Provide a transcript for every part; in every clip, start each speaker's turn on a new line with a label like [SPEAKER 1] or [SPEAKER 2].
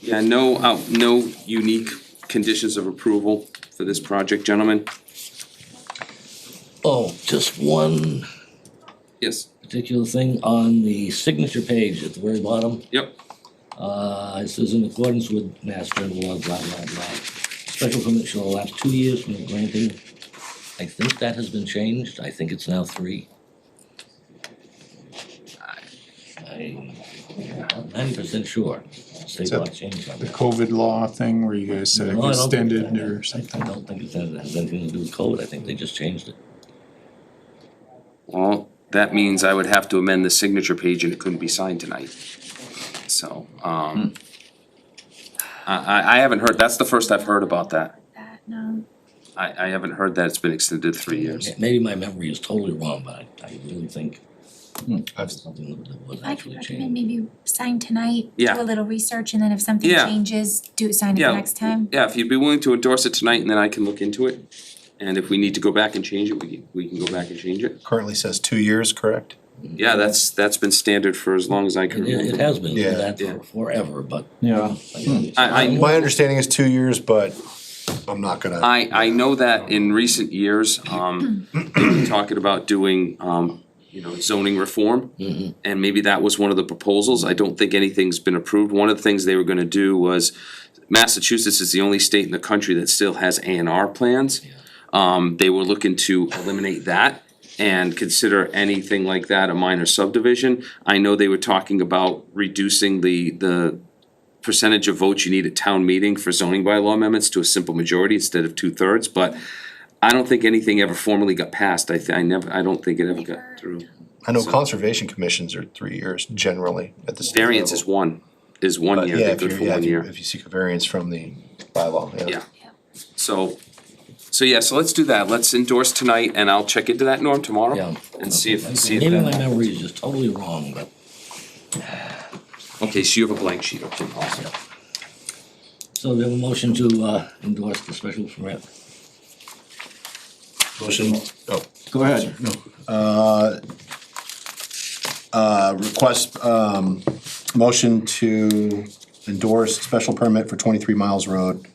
[SPEAKER 1] Yeah, no, out, no unique conditions of approval for this project, gentlemen.
[SPEAKER 2] Oh, just one
[SPEAKER 1] Yes,
[SPEAKER 2] particular thing on the signature page at the very bottom.
[SPEAKER 1] yep,
[SPEAKER 2] Uh, it says in accordance with Mass General Law, blah, blah, blah. Special permit shall last two years from the granting. I think that has been changed. I think it's now three. I, I'm ninety percent sure. State
[SPEAKER 3] So-
[SPEAKER 2] law changed on
[SPEAKER 3] the
[SPEAKER 2] that.
[SPEAKER 3] COVID law thing where you guys said it
[SPEAKER 2] No, I don't think
[SPEAKER 3] extended
[SPEAKER 2] that-
[SPEAKER 3] or
[SPEAKER 2] I
[SPEAKER 3] something?
[SPEAKER 2] don't think it has anything to do with code. I think they just changed it.
[SPEAKER 1] well, that means I would have to amend the signature page and it couldn't be signed tonight. So,
[SPEAKER 4] Hmm.
[SPEAKER 1] um. I, I, I haven't heard, that's the first I've heard about that.
[SPEAKER 5] that, um, no.
[SPEAKER 1] I, I haven't heard that it's been extended three years.
[SPEAKER 2] Yeah, Maybe my memory is totally wrong, but I, I really think
[SPEAKER 3] I've-
[SPEAKER 2] something that was
[SPEAKER 5] I could
[SPEAKER 2] actually
[SPEAKER 5] recommend
[SPEAKER 2] changed.
[SPEAKER 5] maybe sign tonight,
[SPEAKER 1] Yeah.
[SPEAKER 5] do a little research, and then if something
[SPEAKER 1] Yeah.
[SPEAKER 5] changes, do sign it
[SPEAKER 1] Yeah.
[SPEAKER 5] the next time.
[SPEAKER 1] Yeah, if you'd be willing to endorse it tonight and then I can look into it. And if we need to go back and change it, we can, we can go back and change it.
[SPEAKER 4] currently says two years, correct?
[SPEAKER 1] Yeah, that's, that's been standard for as long as I can
[SPEAKER 2] It, it
[SPEAKER 1] remember.
[SPEAKER 2] has been
[SPEAKER 4] Hmm. Yeah.
[SPEAKER 2] that
[SPEAKER 1] Yeah.
[SPEAKER 2] for forever, but.
[SPEAKER 3] Yeah.
[SPEAKER 1] I- I-
[SPEAKER 4] My understanding is two years, but I'm not gonna,
[SPEAKER 1] I, I know that in recent years, um, they've been talking about doing, um, you know, zoning reform. And maybe that was one of the proposals. I don't think anything's been approved. One of the things they were gonna do was Massachusetts is the only state in the country that still has A and R plans. Um, they were looking to eliminate that and consider anything like that a minor subdivision. I know they were talking about reducing the, the percentage of votes you need at town meeting for zoning bylaw amendments to a simple majority instead of two-thirds, but I don't think anything ever formally got passed, I, thi- I never, I don't think it ever got through.
[SPEAKER 4] I know conservation commissions are three years generally at the state level.
[SPEAKER 1] Variance is one, is one
[SPEAKER 4] But
[SPEAKER 1] year,
[SPEAKER 4] yeah,
[SPEAKER 1] they're
[SPEAKER 4] if
[SPEAKER 1] good
[SPEAKER 4] you're,
[SPEAKER 1] for
[SPEAKER 4] yeah,
[SPEAKER 1] one
[SPEAKER 4] if you,
[SPEAKER 1] year,
[SPEAKER 4] if you seek a variance from the bylaw, yeah.
[SPEAKER 1] yeah. So, so yeah, so let's do that, let's endorse tonight, and I'll check into that, Norm, tomorrow?
[SPEAKER 2] Yeah.
[SPEAKER 1] And see if, see if
[SPEAKER 2] Maybe my
[SPEAKER 1] that,
[SPEAKER 2] memory is just totally wrong, but
[SPEAKER 1] okay, so you have a blank sheet, okay, awesome.
[SPEAKER 2] so we have a motion to uh, endorse the special permit.
[SPEAKER 4] Motion, oh,
[SPEAKER 3] Go ahead.
[SPEAKER 4] uh, request, um, motion to endorse special permit for twenty-three miles road,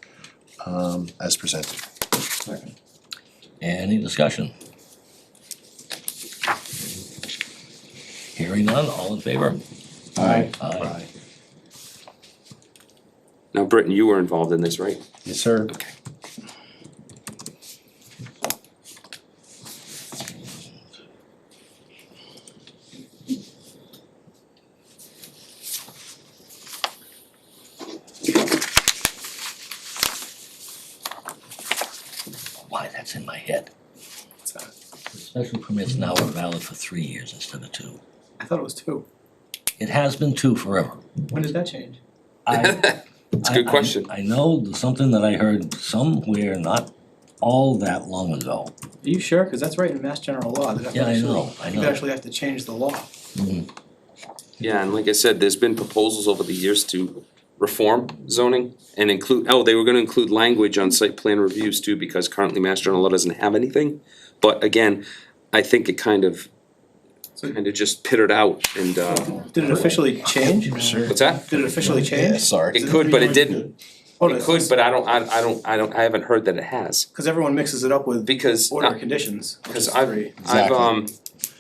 [SPEAKER 4] um, as presented.
[SPEAKER 2] Any discussion? Hearing none, all in favor? Uh,
[SPEAKER 3] Aye.
[SPEAKER 2] Aye.
[SPEAKER 1] Now, Britton, you were involved in this, right?
[SPEAKER 4] Yes, sir.
[SPEAKER 1] Okay.
[SPEAKER 2] Why, that's in my head. The Special permits now are valid for three years instead of two.
[SPEAKER 6] I thought it was two.
[SPEAKER 2] It has been two forever.
[SPEAKER 6] When did that change?
[SPEAKER 2] It's
[SPEAKER 1] a good question.
[SPEAKER 2] I know there's something that I heard somewhere not all that long ago.
[SPEAKER 6] Are you sure? Because that's right in Mass General Law. that
[SPEAKER 2] Yeah, I
[SPEAKER 6] actually-
[SPEAKER 2] know, I
[SPEAKER 6] You
[SPEAKER 2] know.
[SPEAKER 6] actually have to change the law.
[SPEAKER 1] Yeah, and like I said, there's been proposals over the years to reform zoning and include, oh, they were gonna include language on site plan reviews too, because currently Mass General Law doesn't have anything. But again, I think it kind of, kind of just pittered out and, uh,
[SPEAKER 6] Did it officially change? Did
[SPEAKER 1] what's that?
[SPEAKER 6] it officially
[SPEAKER 4] Yeah,
[SPEAKER 6] change?
[SPEAKER 4] sorry.
[SPEAKER 1] It could, but it didn't. It could, but I don't, I, I don't, I don't, I haven't heard that it has,
[SPEAKER 6] Because everyone mixes it up with
[SPEAKER 1] because.
[SPEAKER 6] order
[SPEAKER 1] uh,
[SPEAKER 6] of conditions. which
[SPEAKER 1] Because
[SPEAKER 6] is
[SPEAKER 1] I've,
[SPEAKER 6] three.
[SPEAKER 1] I've,
[SPEAKER 4] Exactly.
[SPEAKER 1] um,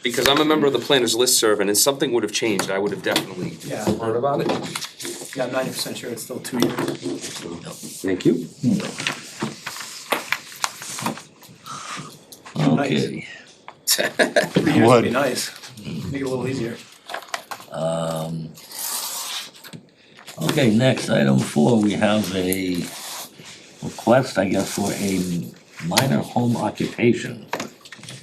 [SPEAKER 1] because I'm a member of the planners listserv, and if something would have changed, I would have definitely
[SPEAKER 6] Yeah.
[SPEAKER 1] heard about it.
[SPEAKER 6] Yeah, I'm ninety percent sure it's still two years.
[SPEAKER 1] Thank you.
[SPEAKER 2] Okay.
[SPEAKER 6] Three years would
[SPEAKER 4] Would.
[SPEAKER 6] be nice. Make it a little easier.
[SPEAKER 2] Um, okay, next, item four, we have a request, I guess, for a minor home occupation.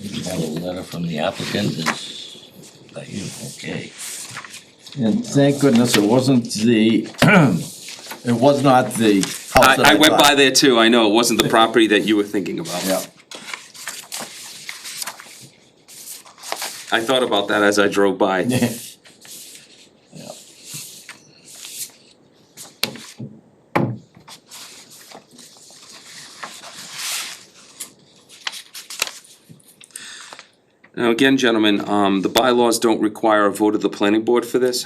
[SPEAKER 2] We have a letter from the applicant, is that you? Okay.
[SPEAKER 7] And thank goodness it wasn't the, it was not the house that
[SPEAKER 1] I, I went by
[SPEAKER 7] bought.
[SPEAKER 1] there too, I know, it wasn't the property that you were thinking about.
[SPEAKER 7] Yeah,
[SPEAKER 1] I thought about that as I drove by.
[SPEAKER 7] yeah.
[SPEAKER 1] Now, again, gentlemen, um, the bylaws don't require a vote of the planning board for this,